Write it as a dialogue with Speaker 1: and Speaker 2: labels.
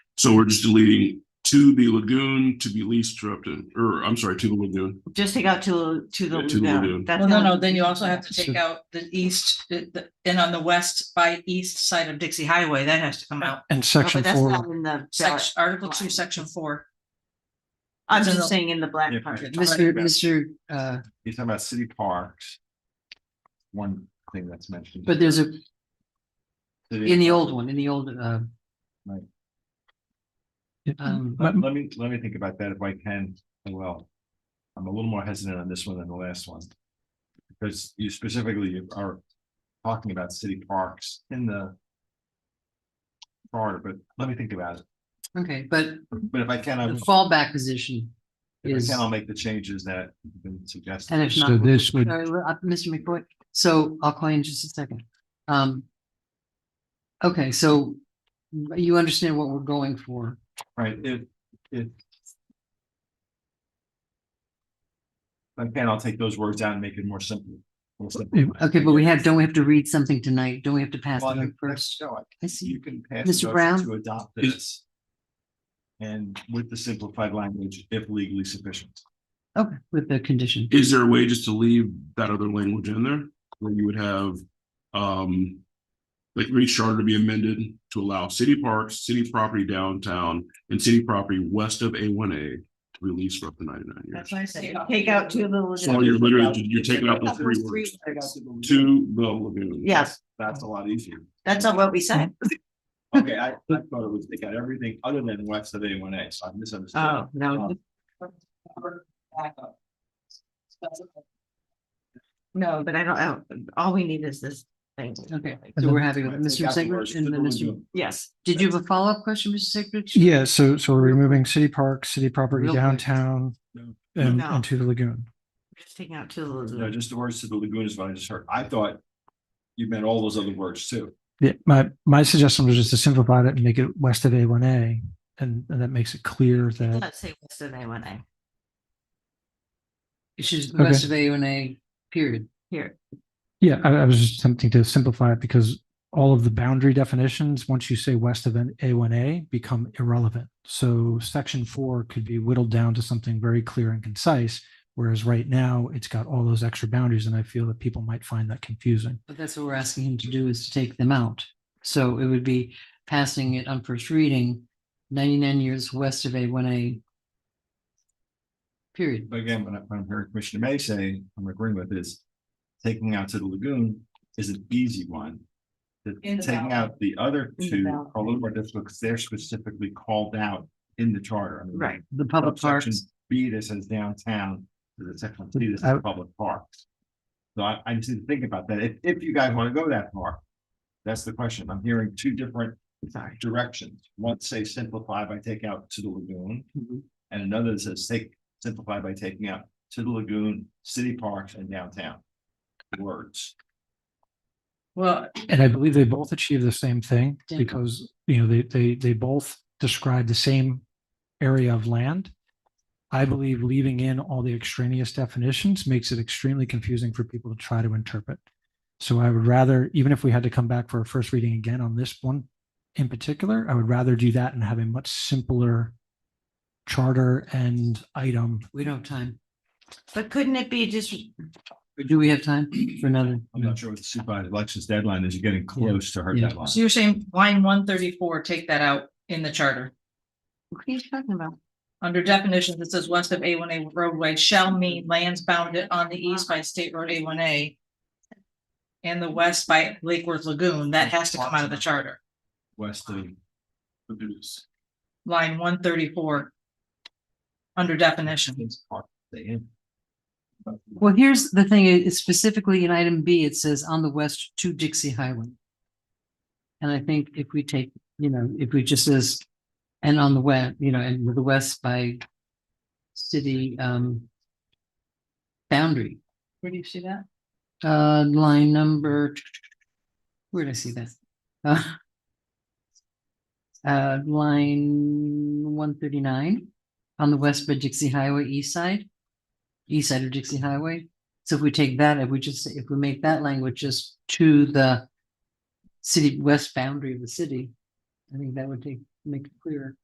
Speaker 1: So we're just deleting to the lagoon to be leased to Upton, or I'm sorry, to the lagoon.
Speaker 2: Just take out to, to the
Speaker 1: Yeah, to the lagoon.
Speaker 2: lagoon. That's
Speaker 3: Well, no,
Speaker 2: not-
Speaker 3: no, then you also have to take
Speaker 1: So-
Speaker 3: out the east, uh, the, and on the west by east side of Dixie Highway, that has to come out.
Speaker 4: And
Speaker 2: Oh, but
Speaker 4: section
Speaker 2: that's
Speaker 4: four,
Speaker 2: not in the ballot.
Speaker 3: Section, Article two,
Speaker 2: Right.
Speaker 3: section four.
Speaker 2: I'm
Speaker 3: it's in
Speaker 2: just
Speaker 3: the-
Speaker 2: saying in the
Speaker 5: Yeah,
Speaker 2: black part.
Speaker 5: right.
Speaker 6: Mr.
Speaker 5: Yeah.
Speaker 6: Mr. Uh,
Speaker 5: You're talking about city parks. One thing that's mentioned.
Speaker 6: but there's a,
Speaker 5: City-
Speaker 6: in the old one, in the old, uh,
Speaker 4: Yeah,
Speaker 6: um,
Speaker 4: my-
Speaker 5: Let let me, let me think about that if I can, I will. I'm a little more hesitant on this one than the last one. Because you specifically are talking about city parks in the. Charter, but let me think about it,
Speaker 6: okay, but
Speaker 5: but if I can,
Speaker 6: the
Speaker 5: I'm,
Speaker 6: fallback position
Speaker 5: if
Speaker 6: is,
Speaker 5: I can, I'll make the changes that have been suggested.
Speaker 6: and if
Speaker 4: So
Speaker 6: not. we'll-
Speaker 4: this would-
Speaker 6: sorry, we're up- Mr. McBoy, so I'll call you in just a second. Um. Okay, so you understand what we're going for.
Speaker 5: Right, it, it. If I can, I'll take those words out and make it more simple. more simple.
Speaker 4: If-
Speaker 6: Okay, but we have, don't we have to read something tonight? Don't we have to pass
Speaker 5: Well, I
Speaker 6: it
Speaker 5: think that's-
Speaker 6: first?
Speaker 5: no, I-
Speaker 6: I see.
Speaker 5: You can pass. a
Speaker 6: Mr.
Speaker 5: motion
Speaker 6: Brown?
Speaker 5: To adopt
Speaker 1: Is-
Speaker 5: this. And with the simplified language, if legally sufficient.
Speaker 6: Okay, with the condition.
Speaker 1: Is there a way just to leave that other language in there where you would have, um, like each charter to be amended to allow city parks, city property downtown and city property west of A one A to be leased for up to ninety nine years.
Speaker 3: what I
Speaker 2: Take out to the
Speaker 1: So
Speaker 2: lagoon.
Speaker 1: you're literally, you're taking out the three words to the lagoon.
Speaker 2: Yes,
Speaker 5: That's a lot easier.
Speaker 2: that's not what we said.
Speaker 5: Okay, I, I thought it was, they got everything other than west of A one A, so I
Speaker 3: Mm-hmm.
Speaker 5: misunderstood.
Speaker 2: Oh, no. No, but I don't, I don't- all we need is this thing.
Speaker 6: Okay,
Speaker 4: And
Speaker 6: so we're
Speaker 4: then-
Speaker 6: happy with
Speaker 5: Right, take
Speaker 6: Mr.
Speaker 5: out the
Speaker 6: Segler
Speaker 5: words
Speaker 6: and
Speaker 5: to
Speaker 6: then
Speaker 5: the
Speaker 6: Mr.
Speaker 5: lagoon.
Speaker 2: Yes.
Speaker 6: Did you have a follow-up question, Mr. Segler?
Speaker 4: yeah, so, so we're removing city park, city property
Speaker 6: Real quick.
Speaker 4: downtown
Speaker 5: No.
Speaker 4: and,
Speaker 2: No.
Speaker 4: and to the lagoon.
Speaker 2: Just taking out to the
Speaker 5: No,
Speaker 2: lagoon.
Speaker 5: just the words to the lagoon is what I just heard. I thought you meant all those other words too.
Speaker 4: Yeah, my, my suggestion was just to simplify it and make it west of A one A. And, and that makes it clear that,
Speaker 2: Let's say what's the name when I
Speaker 6: It's just the
Speaker 4: Okay.
Speaker 6: rest of A and A, period.
Speaker 2: here.
Speaker 4: yeah, I, I was just attempting to simplify it because all of the boundary definitions, once you say west of an A one A, become irrelevant. So section four could be whittled down to something very clear and concise. Whereas right now, it's got all those extra boundaries and I feel that people might find that confusing.
Speaker 6: But that's what we're asking him to do is to take them out. So it would be passing it on first reading, ninety-nine years west of A one A. Period.
Speaker 5: But again, when I- when I'm hearing Commissioner May say, I'm agreeing with this. Taking out to the lagoon is an easy one. The-
Speaker 3: In the
Speaker 5: Taking
Speaker 3: ballot.
Speaker 5: out the other
Speaker 2: In the
Speaker 5: two
Speaker 2: ballot.
Speaker 5: are a little more difficult because they're specifically called out in the charter. I mean,
Speaker 2: Right.
Speaker 6: The public
Speaker 5: subsection
Speaker 6: parks,
Speaker 5: B that says downtown, there's a section C that
Speaker 4: I-
Speaker 5: says public parks. So I, I just need to think about that. If, if you guys want to go that far, that's the question. I'm hearing two different
Speaker 2: Sorry.
Speaker 5: directions. One say simplify by take out to the lagoon.
Speaker 4: Mm-hmm.
Speaker 6: Mhm.
Speaker 5: And another says take, simplify by taking out to the lagoon, city parks and downtown. Words.
Speaker 3: Well,
Speaker 4: And I believe they both achieve the same thing
Speaker 6: Yeah.
Speaker 4: because, you know, they, they, they both describe the same area of land. I believe leaving in all the extraneous definitions makes it extremely confusing for people to try to interpret. So I would rather, even if we had to come back for a first reading again on this one in particular, I would rather do that and have a much simpler charter and item.
Speaker 6: we don't have time.
Speaker 2: But couldn't it be just,
Speaker 6: Or Do we have time for another?
Speaker 5: I'm not sure what the supervisor elections deadline is. You're getting close to her
Speaker 4: Yeah.
Speaker 5: deadline.
Speaker 3: so you're saying line one thirty-four, take that out in the charter.
Speaker 2: what are you talking about?
Speaker 3: Under definitions, it says west of A one A roadway shall mean lands bounded on the east by State Road A one A. And the west by Lake Worth Lagoon, that has to come out of the charter,
Speaker 5: West of.
Speaker 3: line one thirty-four. Under definitions.
Speaker 6: Well, here's the thing, it- it's specifically in item B, it says on the west to Dixie Highway. And I think if we take, you know, if we just says, and on the west, you know, and with the west by city um boundary,
Speaker 3: Where do you see that?
Speaker 6: uh, line number, where did I see that? Uh, Uh, line one thirty-nine on the west by Dixie Highway east side, east side of Dixie Highway. So if we take that, if we just, if we make that language just to the city, west boundary of the city, I think that would take, make it clearer.